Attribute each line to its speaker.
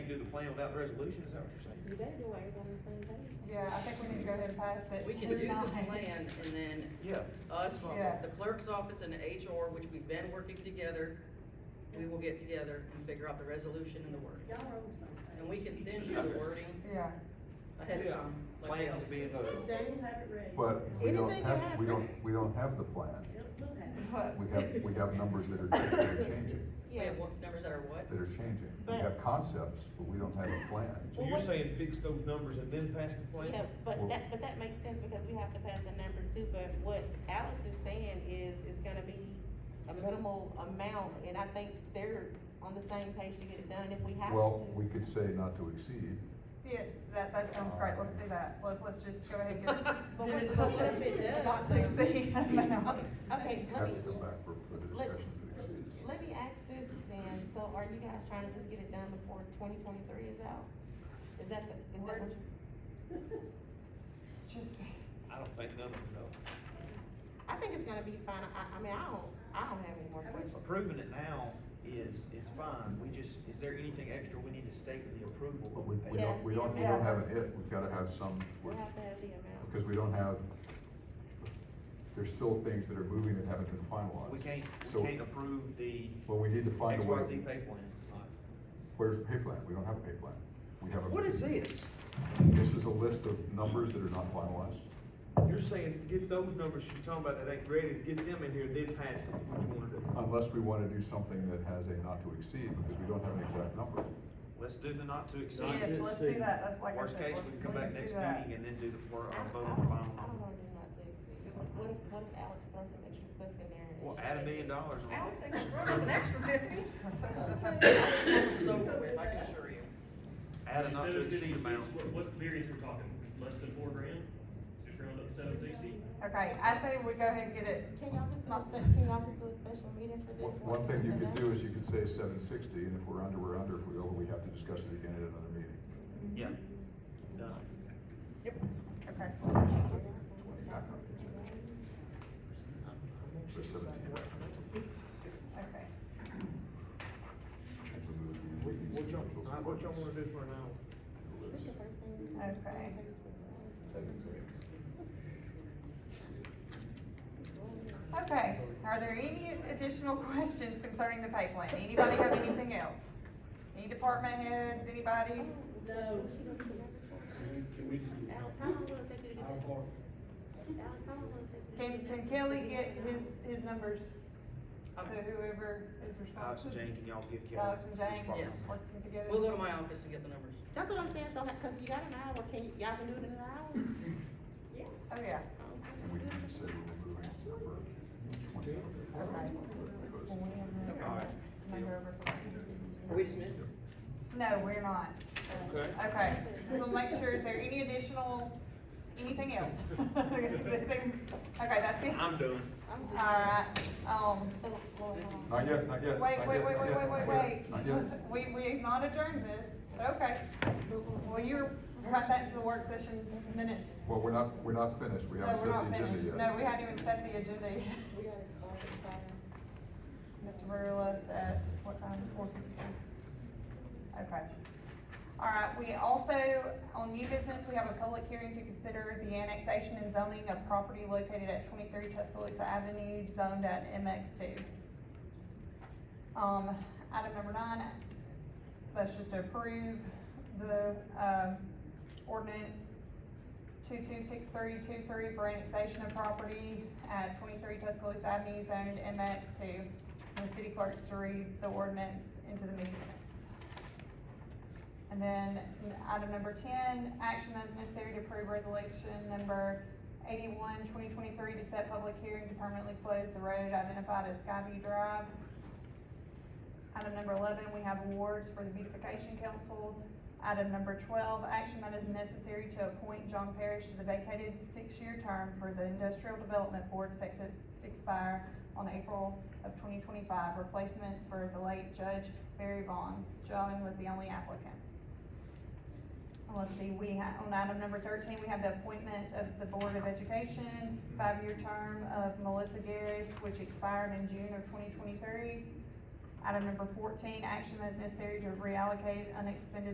Speaker 1: do the plan without the resolution, is that what you're
Speaker 2: You
Speaker 1: saying?
Speaker 2: better do what everybody's saying, buddy.
Speaker 3: Yeah, I think we need to go ahead and pass it.
Speaker 4: We can do the
Speaker 3: tonight.
Speaker 4: plan and then
Speaker 1: Yeah.
Speaker 4: us,
Speaker 3: Yeah.
Speaker 4: the clerk's office and the HR, which we've been working together, we will get together and figure out the resolution and the word.
Speaker 2: Y'all are on something.
Speaker 4: And we can send you the wording
Speaker 3: Yeah,
Speaker 4: ahead of
Speaker 1: Yeah.
Speaker 4: time. like we
Speaker 1: Plans
Speaker 4: always
Speaker 1: being
Speaker 4: do.
Speaker 1: voted on.
Speaker 2: Jamie have it ready.
Speaker 5: But we don't
Speaker 2: Anything
Speaker 5: have,
Speaker 2: can
Speaker 5: we don't,
Speaker 2: happen.
Speaker 5: we don't have the plan.
Speaker 2: Yep, we'll have it.
Speaker 3: but,
Speaker 5: We have, we have numbers that are that are changing,
Speaker 4: We have what, numbers that are what?
Speaker 5: that are changing. We
Speaker 2: But-
Speaker 5: have concepts, but we don't have a plan.
Speaker 1: So you're saying fix those numbers and then pass the plan?
Speaker 2: Yeah, but that, but that makes sense because we have to pass a number too, but what Alex is saying is, it's gonna be a minimal amount, and I think they're on the same page to get it done, and if we have to.
Speaker 5: Well, we could say not to exceed.
Speaker 3: yes, that, that sounds great, let's do that, let, let's just go ahead and get.
Speaker 2: But
Speaker 3: get
Speaker 2: what-
Speaker 3: it
Speaker 2: but what if it
Speaker 3: done.
Speaker 2: does?
Speaker 3: Not to exceed amount.
Speaker 2: Okay, let
Speaker 5: Have
Speaker 2: me,
Speaker 5: to go back for, for the
Speaker 2: let,
Speaker 5: discussion to exceed.
Speaker 2: let me ask this then, so are you guys trying to just get it done before twenty twenty-three is out? Is that the, is that what
Speaker 3: Word.
Speaker 2: you?
Speaker 3: Just,
Speaker 1: I don't think none of them
Speaker 2: I think it's gonna be fine, I, I mean, I don't, I don't have any more
Speaker 1: know.
Speaker 2: questions.
Speaker 1: Approving it now is, is fine, we just, is there anything extra we need to state with the approval?
Speaker 5: But we, we don't, we don't, we don't have an if, we've gotta have some,
Speaker 2: We have to have the amount.
Speaker 5: because we don't have, there's still things that are moving that haven't been finalized.
Speaker 1: We can't,
Speaker 5: So-
Speaker 1: we can't approve the
Speaker 5: Well, we need to find
Speaker 1: X,
Speaker 5: a way.
Speaker 1: Y, Z pay plan.
Speaker 5: Where's the pay plan? We don't have a pay plan. We have a.
Speaker 1: What is this?
Speaker 5: This is a list of numbers that are not finalized.
Speaker 1: You're saying get those numbers you're talking about that ain't ready, get them in here, then pass it, what you wanna do?
Speaker 5: Unless we wanna do something that has a not to exceed, because we don't have an exact number.
Speaker 1: Let's do the not to exceed.
Speaker 3: yes, let's do that, that's like I
Speaker 1: Worst
Speaker 3: said,
Speaker 1: case,
Speaker 3: let's-
Speaker 1: we can come back
Speaker 3: let's do
Speaker 1: next
Speaker 3: that.
Speaker 1: meeting and then do the, or
Speaker 2: I don't,
Speaker 1: vote
Speaker 2: I
Speaker 1: on the
Speaker 2: don't,
Speaker 1: final.
Speaker 2: I don't wanna do nothing. What if, what if Alex throws some extra stuff in there? and
Speaker 1: Well,
Speaker 2: she
Speaker 1: add a
Speaker 2: takes
Speaker 1: million
Speaker 2: it?
Speaker 1: dollars on
Speaker 4: Alex,
Speaker 1: it.
Speaker 4: I can throw an extra Tiffany. It's over with, I can assure you.
Speaker 1: Add a not to
Speaker 6: Instead of
Speaker 1: exceed
Speaker 6: 56,
Speaker 1: amount.
Speaker 6: What, what's the variance we're talking, less than four grand, just round up seven sixty?
Speaker 3: Okay, I say we go ahead and get it,
Speaker 2: Can y'all just do a spe- can y'all just do a special meeting for this?
Speaker 5: One one thing you could do is you could say seven sixty, and if we're under, we're under. If we over, we have to discuss it again at another meeting.
Speaker 1: Yeah. Done.
Speaker 3: okay.
Speaker 5: Twenty back up. Or seventeen back up.
Speaker 3: Okay.
Speaker 5: And we move to the meeting schedules.
Speaker 1: Uh, do for now?
Speaker 2: This the first thing we do.
Speaker 3: Okay. Okay, are there any additional questions concerning the pay plan? Anybody have anything else? Any department heads, anybody?
Speaker 2: No. Alex, how long will it take you to get this? Alex, how long will it take you to
Speaker 3: Can,
Speaker 2: get
Speaker 3: can
Speaker 2: this?
Speaker 3: Kelly get his, his numbers to
Speaker 4: Okay.
Speaker 3: whoever is
Speaker 1: Alex and
Speaker 3: responsible?
Speaker 1: Jane, can y'all give Kelly?
Speaker 3: Alex and Jane,
Speaker 1: his phone
Speaker 4: Yes.
Speaker 1: number?
Speaker 3: working together?
Speaker 4: We'll go to my office and get the numbers.
Speaker 2: That's what I'm saying, so, ha- cause you got an hour, can, y- y'all can do it in an hour? Yeah.
Speaker 3: Oh, yeah,
Speaker 2: so I can
Speaker 5: And we
Speaker 2: do
Speaker 5: can
Speaker 2: it.
Speaker 5: just say we're moving over twenty.
Speaker 3: okay.
Speaker 1: All right.
Speaker 3: Might go over for that.
Speaker 4: Are we dismissed?
Speaker 3: No, we're not.
Speaker 1: Okay.
Speaker 3: Okay, so we'll make sure, is there any additional, anything else? This thing- Okay, that's it.
Speaker 1: I'm done.
Speaker 2: I'm just-
Speaker 3: Alright, um,
Speaker 2: so it's going on.
Speaker 5: Not yet, not yet.
Speaker 3: wait, wait,
Speaker 5: not
Speaker 3: wait,
Speaker 5: yet,
Speaker 3: wait, wait,
Speaker 5: not yet,
Speaker 3: wait, wait.
Speaker 5: not yet, Not yet.
Speaker 3: We, we have not adjourned this, but okay. Well, you're right back to the work session minutes.
Speaker 5: Well, we're not, we're not finished. We
Speaker 3: No,
Speaker 5: haven't
Speaker 3: we're
Speaker 5: set the
Speaker 3: not
Speaker 5: agenda
Speaker 3: finished.
Speaker 5: yet.
Speaker 3: No, we haven't even set the agenda yet.
Speaker 2: We gotta start it, so.
Speaker 3: Mr. Brewer left at what time, four fifty-four? Okay. All right, we also, on new business, we have a public hearing to consider the annexation and zoning of property located at twenty-three Tuscaloosa Avenue, zoned at MX two. Um, item number nine, that's just to approve the, um, ordinance two-two-six-three-two-three for annexation of property at twenty-three Tuscaloosa Avenue, zoned MX two. And the city clerks to read the ordinance into the meeting minutes. And then, n- item number ten, action that is necessary to approve resolution number 81-2023 to set public hearing to permanently close the road identified as Skyview Drive. Item number eleven, we have awards for the beautification council. Item number twelve, action that is necessary to appoint John Parrish to the vacated six-year term for the Industrial Development Board set to expire on April of twenty twenty-five, replacement for the late Judge Barry Vaughn. John was the only applicant. And Let's see, we have, on item number thirteen, we have the appointment of the Board of Education, five-year term of Melissa Garris, which expired in June of twenty twenty-three. Item number fourteen, action that is necessary to reallocate unexpended